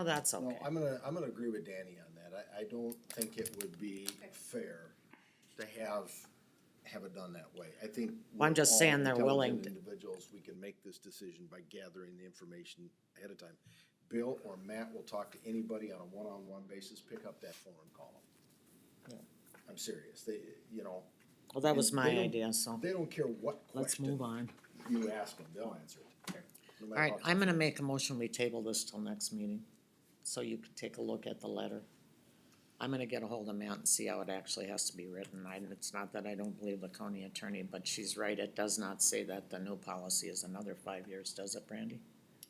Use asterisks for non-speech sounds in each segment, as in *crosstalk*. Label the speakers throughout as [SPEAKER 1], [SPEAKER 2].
[SPEAKER 1] Oh, that's
[SPEAKER 2] No,
[SPEAKER 1] okay.
[SPEAKER 2] I'm gonna, I'm gonna agree with Danny on that. I, I don't think it would be fair to have, have it done that way. I think.
[SPEAKER 1] Well, I'm
[SPEAKER 2] we're
[SPEAKER 1] just
[SPEAKER 2] all
[SPEAKER 1] saying they're willing
[SPEAKER 2] intelligent Individuals, we can make this decision by gathering the information ahead of time. Bill or Matt will talk to anybody on a one-on-one basis, pick up that phone and call them. I'm serious. They, you know,
[SPEAKER 1] Well, that was
[SPEAKER 2] and
[SPEAKER 1] my
[SPEAKER 2] they don't-
[SPEAKER 1] idea, so
[SPEAKER 2] they don't care what
[SPEAKER 1] let's move
[SPEAKER 2] question
[SPEAKER 1] on.
[SPEAKER 2] you ask them, they'll answer it. No
[SPEAKER 1] All
[SPEAKER 2] matter
[SPEAKER 1] right,
[SPEAKER 2] how
[SPEAKER 1] I'm gonna make a motion, we table this till next meeting, so you can take a look at the letter. I'm gonna get a hold of Matt and see how it actually has to be written. I, it's not that I don't believe the county attorney, but she's right, it does not say that the new policy is another five years, does it, Brandy?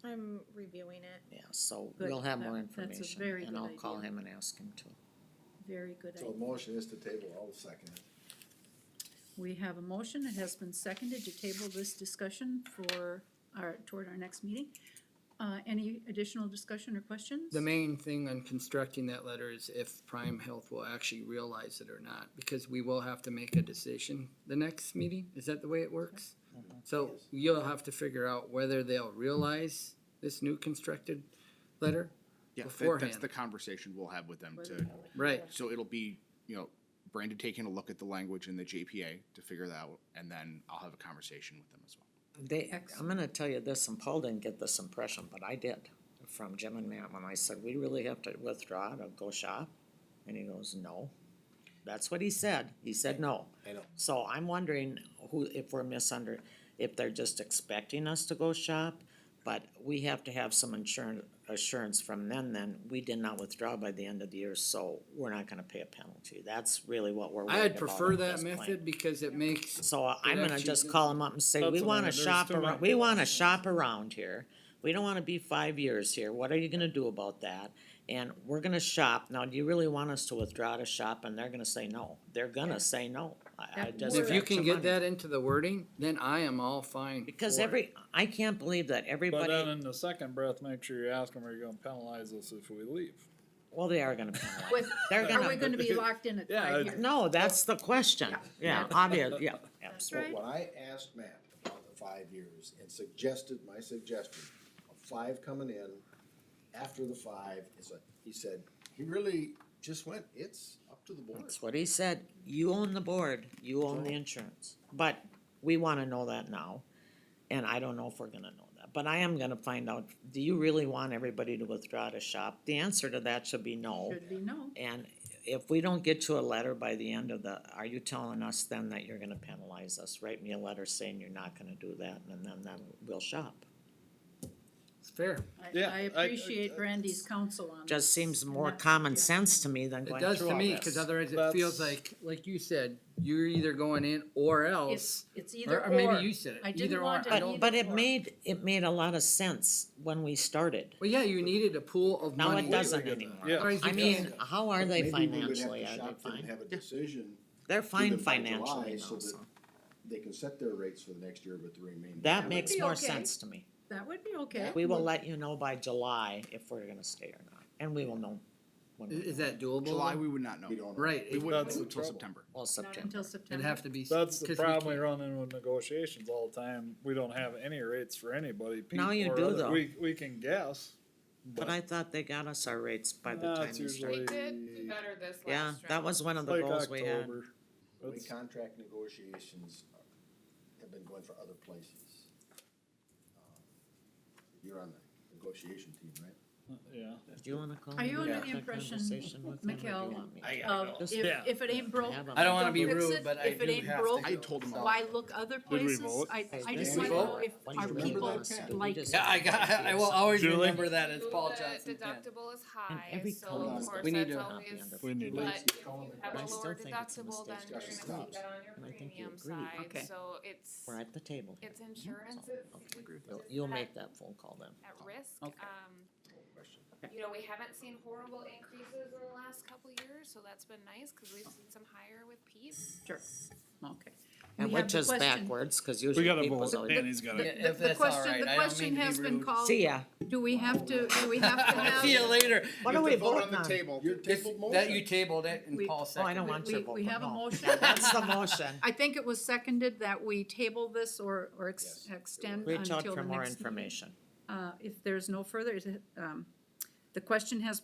[SPEAKER 3] I'm reviewing it.
[SPEAKER 1] Yeah, so
[SPEAKER 3] Good,
[SPEAKER 1] we'll have
[SPEAKER 3] that-
[SPEAKER 1] more
[SPEAKER 3] that's a
[SPEAKER 1] information,
[SPEAKER 3] very
[SPEAKER 1] and
[SPEAKER 3] good
[SPEAKER 1] I'll call
[SPEAKER 3] idea.
[SPEAKER 1] him and ask him to.
[SPEAKER 3] Very good
[SPEAKER 2] So
[SPEAKER 3] idea.
[SPEAKER 2] the motion is to table, I'll second it.
[SPEAKER 3] We have a motion. It has been seconded to table this discussion for our, toward our next meeting. Uh, any additional discussion or questions?
[SPEAKER 4] The main thing on constructing that letter is if Prime Health will actually realize it or not, because we will have to make a decision the next meeting. Is that the way it works?
[SPEAKER 5] Mm-hmm.
[SPEAKER 4] So you'll have to figure out whether they'll realize this new constructed letter.
[SPEAKER 5] Yeah, that- that's
[SPEAKER 4] beforehand.
[SPEAKER 5] the conversation we'll have with them to,
[SPEAKER 3] Whether-
[SPEAKER 4] Right,
[SPEAKER 5] so it'll be, you know, Brandon taking a look at the language in the JPA to figure that out, and then I'll have a conversation with them as well.
[SPEAKER 1] They, I'm gonna tell you this, and Paul didn't get this impression, but I did, from Jim and Matt, when I said, we really have to withdraw to go shop? And he goes, no. That's what he said, he said no.
[SPEAKER 2] I know.
[SPEAKER 1] So I'm wondering who, if we're misunder, if they're just expecting us to go shop, but we have to have some insurance, assurance from them then, we did not withdraw by the end of the year, so we're not gonna pay a penalty. That's really what we're worried about.
[SPEAKER 4] I'd prefer
[SPEAKER 1] at
[SPEAKER 4] that
[SPEAKER 1] this point.
[SPEAKER 4] method because it makes,
[SPEAKER 1] So uh, I'm gonna
[SPEAKER 4] actually
[SPEAKER 1] just
[SPEAKER 4] do-
[SPEAKER 1] call them up and say,
[SPEAKER 6] That's
[SPEAKER 1] we
[SPEAKER 6] what I
[SPEAKER 1] wanna
[SPEAKER 6] mean, there's
[SPEAKER 1] shop
[SPEAKER 6] too
[SPEAKER 1] around, we
[SPEAKER 6] many
[SPEAKER 1] wanna shop around here. We don't wanna be five years here, what are you gonna do about that? And we're gonna shop, now do you really want us to withdraw to shop? And they're gonna say no, they're gonna say no. I, I
[SPEAKER 3] That
[SPEAKER 1] just.
[SPEAKER 4] if you
[SPEAKER 1] that's
[SPEAKER 4] can
[SPEAKER 1] your
[SPEAKER 4] get
[SPEAKER 1] money.
[SPEAKER 4] that into the wording, then I am all fine.
[SPEAKER 1] Because
[SPEAKER 4] for uh, it.
[SPEAKER 1] every, I can't believe that
[SPEAKER 6] But then
[SPEAKER 1] everybody,
[SPEAKER 6] in the second breath, make sure you ask them, are you gonna penalize us if we leave?
[SPEAKER 1] well, they are gonna penalize.
[SPEAKER 3] With,
[SPEAKER 1] They're
[SPEAKER 3] are we
[SPEAKER 1] gonna,
[SPEAKER 3] gonna be locked in at
[SPEAKER 6] Yeah,
[SPEAKER 3] five
[SPEAKER 6] I'd-
[SPEAKER 3] years?
[SPEAKER 1] no, that's the question, yeah, obvious, yeah, absolutely.
[SPEAKER 3] right.
[SPEAKER 2] When I asked Matt about the five years and suggested my suggestion of five coming in after the five, is a, he said, he really just went, it's up to the board.
[SPEAKER 1] That's what he said, you own the board, you own the insurance, but we wanna know that now. And I don't know if we're gonna know that, but I am gonna find out, do you really want everybody to withdraw to shop? The answer to that should be no,
[SPEAKER 3] Should be no.
[SPEAKER 1] and if we don't get you a letter by the end of the, are you telling us then that you're gonna penalize us? Write me a letter saying you're not gonna do that, and then, then we'll shop.
[SPEAKER 4] It's fair.
[SPEAKER 3] I,
[SPEAKER 6] Yeah,
[SPEAKER 3] I
[SPEAKER 6] I-
[SPEAKER 3] appreciate Brandy's counsel on this.
[SPEAKER 1] Just seems
[SPEAKER 3] and
[SPEAKER 1] more
[SPEAKER 3] that's-
[SPEAKER 1] common
[SPEAKER 3] yeah.
[SPEAKER 1] sense to me than
[SPEAKER 4] It
[SPEAKER 1] going
[SPEAKER 4] does
[SPEAKER 1] through
[SPEAKER 4] to
[SPEAKER 1] all
[SPEAKER 4] me,
[SPEAKER 1] this.
[SPEAKER 4] cause otherwise it
[SPEAKER 6] That's-
[SPEAKER 4] feels like, like you said, you're either going in or else.
[SPEAKER 3] It's, it's
[SPEAKER 4] Or
[SPEAKER 3] either
[SPEAKER 4] or
[SPEAKER 3] or.
[SPEAKER 4] maybe you said it,
[SPEAKER 3] I
[SPEAKER 4] either or.
[SPEAKER 3] didn't want it
[SPEAKER 4] I don't-
[SPEAKER 3] either.
[SPEAKER 1] But, but it
[SPEAKER 3] or.
[SPEAKER 1] made, it made a lot of sense when we started.
[SPEAKER 4] Well, yeah, you needed a pool of
[SPEAKER 1] Now
[SPEAKER 4] money.
[SPEAKER 1] it doesn't
[SPEAKER 6] Completely
[SPEAKER 1] anymore.
[SPEAKER 6] Yeah.
[SPEAKER 4] Otherwise
[SPEAKER 1] I
[SPEAKER 4] you
[SPEAKER 1] mean,
[SPEAKER 4] just-
[SPEAKER 1] how are they
[SPEAKER 2] Maybe we would have to
[SPEAKER 1] financially? Are they
[SPEAKER 2] shop them and
[SPEAKER 1] fine?
[SPEAKER 2] Have a decision,
[SPEAKER 1] They're fine
[SPEAKER 2] them by July
[SPEAKER 1] financially
[SPEAKER 2] so
[SPEAKER 1] now,
[SPEAKER 2] that-
[SPEAKER 1] so.
[SPEAKER 2] they can set their rates for the next year, but the remaining.
[SPEAKER 1] That
[SPEAKER 3] would
[SPEAKER 1] makes
[SPEAKER 3] be
[SPEAKER 1] more
[SPEAKER 3] okay.
[SPEAKER 1] sense to me.
[SPEAKER 3] That would be okay.
[SPEAKER 1] We will let you know by July if we're gonna stay or not, and we will know. when
[SPEAKER 4] Is,
[SPEAKER 1] we
[SPEAKER 4] is
[SPEAKER 1] know.
[SPEAKER 4] that doable?
[SPEAKER 5] July,
[SPEAKER 4] though?
[SPEAKER 5] we would not know.
[SPEAKER 2] We don't. know.
[SPEAKER 4] Right,
[SPEAKER 5] We
[SPEAKER 4] it-
[SPEAKER 5] wouldn't
[SPEAKER 6] That's
[SPEAKER 5] know
[SPEAKER 6] the
[SPEAKER 5] until
[SPEAKER 6] trouble.
[SPEAKER 5] September.
[SPEAKER 1] Well,
[SPEAKER 3] Not until
[SPEAKER 1] September.
[SPEAKER 3] September.
[SPEAKER 4] it'd have to be.
[SPEAKER 6] That's
[SPEAKER 4] 'cause we
[SPEAKER 6] the problem we
[SPEAKER 4] can't-
[SPEAKER 6] run in with negotiations all the time. We don't have any rates for anybody. Pete,
[SPEAKER 1] Now you
[SPEAKER 6] or
[SPEAKER 1] do,
[SPEAKER 6] other-
[SPEAKER 1] though.
[SPEAKER 6] We, we can guess.
[SPEAKER 1] But I thought they got us our rates by the
[SPEAKER 6] Nah,
[SPEAKER 1] time
[SPEAKER 6] it's
[SPEAKER 1] we started.
[SPEAKER 6] usually-
[SPEAKER 7] We did do better this last
[SPEAKER 1] Yeah,
[SPEAKER 7] round.
[SPEAKER 1] that was one of the
[SPEAKER 6] like
[SPEAKER 1] goals we had.
[SPEAKER 6] October.
[SPEAKER 2] The way
[SPEAKER 6] That's-
[SPEAKER 2] contract negotiations are- have been going for other places. Um, You're on the negotiation team, right?
[SPEAKER 6] Yeah.
[SPEAKER 1] Do you wanna call?
[SPEAKER 3] Are
[SPEAKER 1] and
[SPEAKER 3] you
[SPEAKER 1] have
[SPEAKER 3] under the
[SPEAKER 1] that
[SPEAKER 3] impression,
[SPEAKER 1] conversation with them, or do you
[SPEAKER 3] Mikhail,
[SPEAKER 1] want me to?
[SPEAKER 3] Uh, if,
[SPEAKER 6] Yeah.
[SPEAKER 3] if it ain't broke,
[SPEAKER 1] Have 'em.
[SPEAKER 4] I don't wanna
[SPEAKER 3] Don't
[SPEAKER 4] be
[SPEAKER 3] fix
[SPEAKER 4] rude,
[SPEAKER 3] it
[SPEAKER 4] but I
[SPEAKER 3] if it
[SPEAKER 4] do
[SPEAKER 3] ain't
[SPEAKER 4] have
[SPEAKER 3] broke.
[SPEAKER 4] to.
[SPEAKER 5] I told them all.
[SPEAKER 3] why look other
[SPEAKER 6] we
[SPEAKER 3] places?
[SPEAKER 6] vote?
[SPEAKER 3] I, I just
[SPEAKER 1] Did
[SPEAKER 3] want to
[SPEAKER 1] we
[SPEAKER 3] know
[SPEAKER 4] vote?
[SPEAKER 3] if
[SPEAKER 1] What do you
[SPEAKER 3] our
[SPEAKER 1] remember
[SPEAKER 3] people
[SPEAKER 1] us? Do we
[SPEAKER 3] like
[SPEAKER 1] just-
[SPEAKER 4] Yeah, I got, I will always
[SPEAKER 6] Julie?
[SPEAKER 4] remember that as Paul
[SPEAKER 7] The
[SPEAKER 4] Johnson's pen.
[SPEAKER 7] Deductible is
[SPEAKER 1] And
[SPEAKER 7] high,
[SPEAKER 1] every
[SPEAKER 7] so
[SPEAKER 1] color
[SPEAKER 7] of
[SPEAKER 1] is
[SPEAKER 7] course
[SPEAKER 4] We need
[SPEAKER 7] that's
[SPEAKER 4] to-
[SPEAKER 1] Not the
[SPEAKER 7] always.
[SPEAKER 1] under-
[SPEAKER 6] We need to.
[SPEAKER 7] But if you have
[SPEAKER 1] I
[SPEAKER 7] a
[SPEAKER 1] still
[SPEAKER 7] lower
[SPEAKER 1] think it's a
[SPEAKER 7] deductible, then
[SPEAKER 1] mistake.
[SPEAKER 7] you're gonna
[SPEAKER 2] Discussion
[SPEAKER 7] keep that
[SPEAKER 2] stops.
[SPEAKER 7] on your
[SPEAKER 1] And I think you
[SPEAKER 7] premium
[SPEAKER 1] agree.
[SPEAKER 3] Okay.
[SPEAKER 7] side, so it's,
[SPEAKER 1] We're at the table. here.
[SPEAKER 7] it's insurance,
[SPEAKER 1] So,
[SPEAKER 7] it's,
[SPEAKER 1] okay.
[SPEAKER 7] it's
[SPEAKER 1] You'll-
[SPEAKER 7] just
[SPEAKER 1] You'll
[SPEAKER 7] that
[SPEAKER 1] make that phone call then.
[SPEAKER 7] at risk.
[SPEAKER 4] Okay.
[SPEAKER 7] Um,
[SPEAKER 2] Question.
[SPEAKER 7] you know, we haven't seen horrible increases in the last couple years, so that's been nice, cause we've seen some higher with Pete.
[SPEAKER 3] Sure, okay.
[SPEAKER 1] And
[SPEAKER 3] We have
[SPEAKER 1] which
[SPEAKER 3] the
[SPEAKER 1] is
[SPEAKER 3] question.
[SPEAKER 1] backwards, cause usually people's always,
[SPEAKER 6] got
[SPEAKER 3] The-
[SPEAKER 4] Yeah,
[SPEAKER 3] the-
[SPEAKER 4] if
[SPEAKER 3] The
[SPEAKER 4] that's all
[SPEAKER 3] question,
[SPEAKER 4] right,
[SPEAKER 3] the
[SPEAKER 4] I don't
[SPEAKER 3] question
[SPEAKER 4] mean to be
[SPEAKER 3] has been
[SPEAKER 4] rude.
[SPEAKER 3] called,
[SPEAKER 1] see ya.
[SPEAKER 3] do we have to, do
[SPEAKER 4] *laughs*
[SPEAKER 3] we have to have?
[SPEAKER 4] See you later.
[SPEAKER 1] What are we voting
[SPEAKER 5] On the
[SPEAKER 1] on?
[SPEAKER 5] table.
[SPEAKER 2] Your
[SPEAKER 4] This-
[SPEAKER 2] tabled motion.
[SPEAKER 4] That you tabled it and
[SPEAKER 3] We-
[SPEAKER 4] Paul
[SPEAKER 1] Oh, I don't
[SPEAKER 4] seconded it.
[SPEAKER 1] want your
[SPEAKER 3] We-
[SPEAKER 1] vote.
[SPEAKER 3] we have a
[SPEAKER 1] no.
[SPEAKER 3] motion.
[SPEAKER 1] Yeah, That's the
[SPEAKER 3] *laughs*
[SPEAKER 1] motion.
[SPEAKER 3] I think it was seconded that we table this or, or ex-
[SPEAKER 2] Yes.
[SPEAKER 3] extend until the
[SPEAKER 1] Reach
[SPEAKER 3] next
[SPEAKER 1] out for more
[SPEAKER 3] meeting.
[SPEAKER 1] information.
[SPEAKER 3] Uh, if there's no further, is it, um, The question has